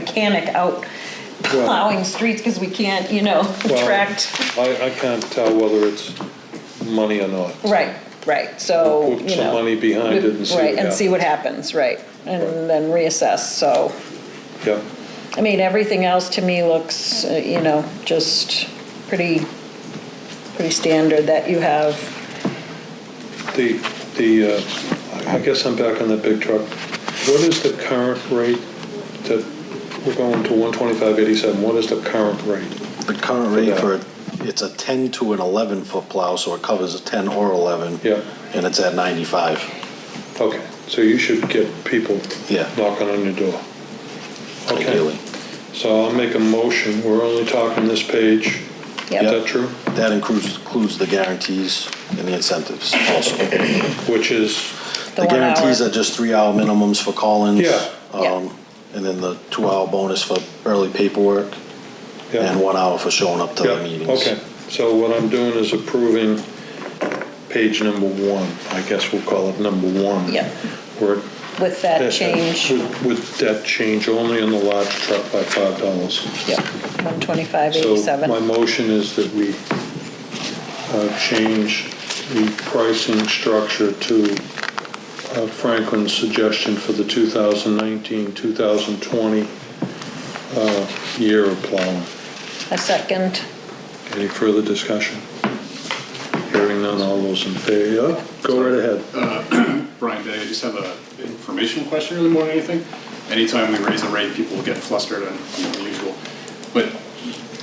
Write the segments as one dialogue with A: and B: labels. A: mechanic out plowing streets because we can't, you know,
B: Well,
A: tract.
B: I, I can't tell whether it's money or not.
A: Right, right, so,
B: We'll put
A: you
B: some
A: know.
B: money behind it and see what
A: Right, and see what happens, right, and then reassess, so,
B: Yeah,
A: I mean, everything else to me looks, uh, you know, just pretty, pretty standard that you have,
B: the, the, uh, I guess I'm back on the big truck. What is the current rate that, we're going to one twenty-five eighty-seven, what is the current rate?
C: The current rate
B: For
C: for, it's a 10 to an 11-foot plow, so it covers a 10 or 11.
B: Yeah.
C: And it's at 95.
B: Okay, so you should get people
C: Yeah.
B: knocking on your door. Okay.
C: Ideally.
B: So I'll make a motion, we're only talking this page, is
A: yep,
B: that true?
C: That includes, includes the guarantees and the incentives also. The
B: Which is,
A: the one hour.
C: guarantees are just three-hour minimums for call-ins.
B: Yeah.
A: Yeah.
C: um, And then the two-hour bonus for early paperwork
B: yeah.
C: and one hour for showing up to
B: Yeah,
C: the meetings.
B: okay. So what I'm doing is approving page number one, I guess we'll call it number one.
A: Yep.
B: Where-
A: With that change,
B: With- With that change only on the large truck by five dollars.
A: yep, one twenty-five
B: So my
A: eighty-seven,
B: motion is that we uh, change the pricing structure to uh, Franklin's suggestion for the 2019, 2020 uh, year of plowing.
A: a second,
B: Any further discussion? Hearing none, all those in favor, yeah, go right ahead.
D: Brian Day, I just have a informational question really more than anything. Anytime we raise a rate, people will get flustered and unusual. But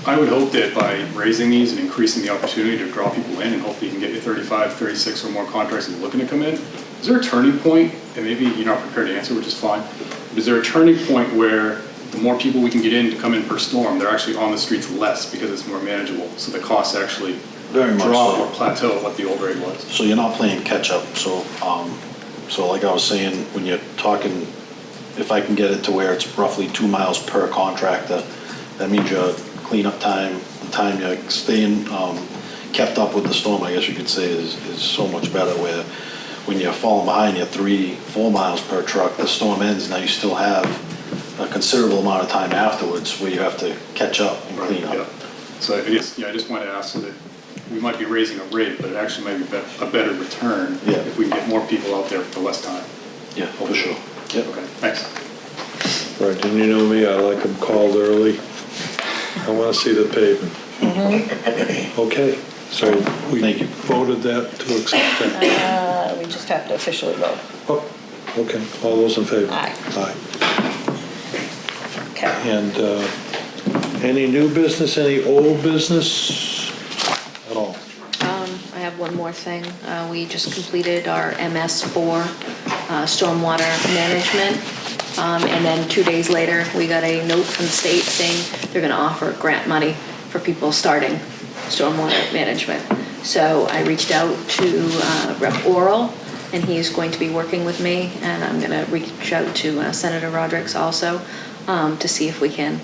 D: I would hope that by raising these and increasing the opportunity to draw people in and hopefully you can get your 35, 36 or more contracts and looking to come in, is there a turning point, and maybe you're not prepared to answer, which is fine, but is there a turning point where the more people we can get in to come in per storm, they're actually on the streets less because it's more manageable, so the costs actually
C: Very much
D: drop
C: so.
D: or plateau at what the old rate was?
C: So you're not playing catch-up, so, um, so like I was saying, when you're talking, if I can get it to where it's roughly two miles per contractor, that means your cleanup time, the time you're staying, um, kept up with the storm, I guess you could say, is, is so much better where when you're falling behind, you're three, four miles per truck, the storm ends, now you still have a considerable amount of time afterwards where you have to catch up and
D: Right,
C: clean
D: yeah.
C: up.
D: So I guess, yeah, I just wanted to ask so that we might be raising a rate, but it actually might be bet- a better return
C: Yeah.
D: if we can get more people out there for less time.
C: Yeah, for sure. Yep.
D: Okay, thanks.
B: Right, and you know me, I like them called early. I want to see the pavement.
A: Mm-hmm.
B: Okay, so we
C: Thank you.
B: voted that to accept that.
A: uh, we just have to officially vote,
B: Oh, Okay, all those in favor?
A: Uh-huh. Aye.
B: Aye.
A: okay.
B: And uh, any new business, any old business at all?
E: Um, I have one more thing. Uh, We just completed our MS4 uh, stormwater management. Um, And then two days later, we got a note from the state saying they're going to offer grant money for people starting stormwater management. So I reached out to uh, Rep. Oral, and he is going to be working with me. And I'm going to reach out to uh, Senator Rodrick's also um, to see if we can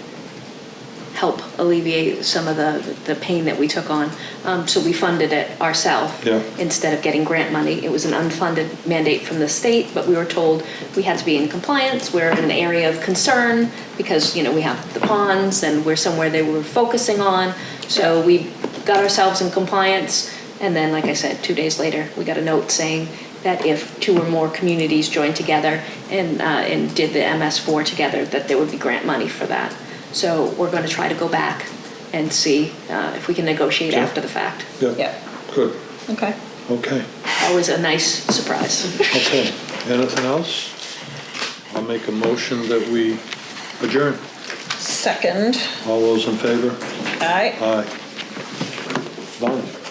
E: help alleviate some of the, the pain that we took on. Um, so we funded it ourselves
B: Yeah.
E: instead of getting grant money. It was an unfunded mandate from the state, but we were told we had to be in compliance. We're in an area of concern because, you know, we have the ponds and we're somewhere they were focusing on. So we got ourselves in compliance. And then, like I said, two days later, we got a note saying that if two or more communities joined together and, uh, and did the MS4 together, that there would be grant money for that. So we're going to try to go back and see uh, if we can negotiate
B: Sure.
E: after the fact.
A: Yeah,
B: Good,
A: okay.
B: okay.
E: Always a nice surprise.
B: Okay, anything else? I'll make a motion that we adjourn.
A: Second,
B: All those in favor?
A: aye.
B: Aye. Done.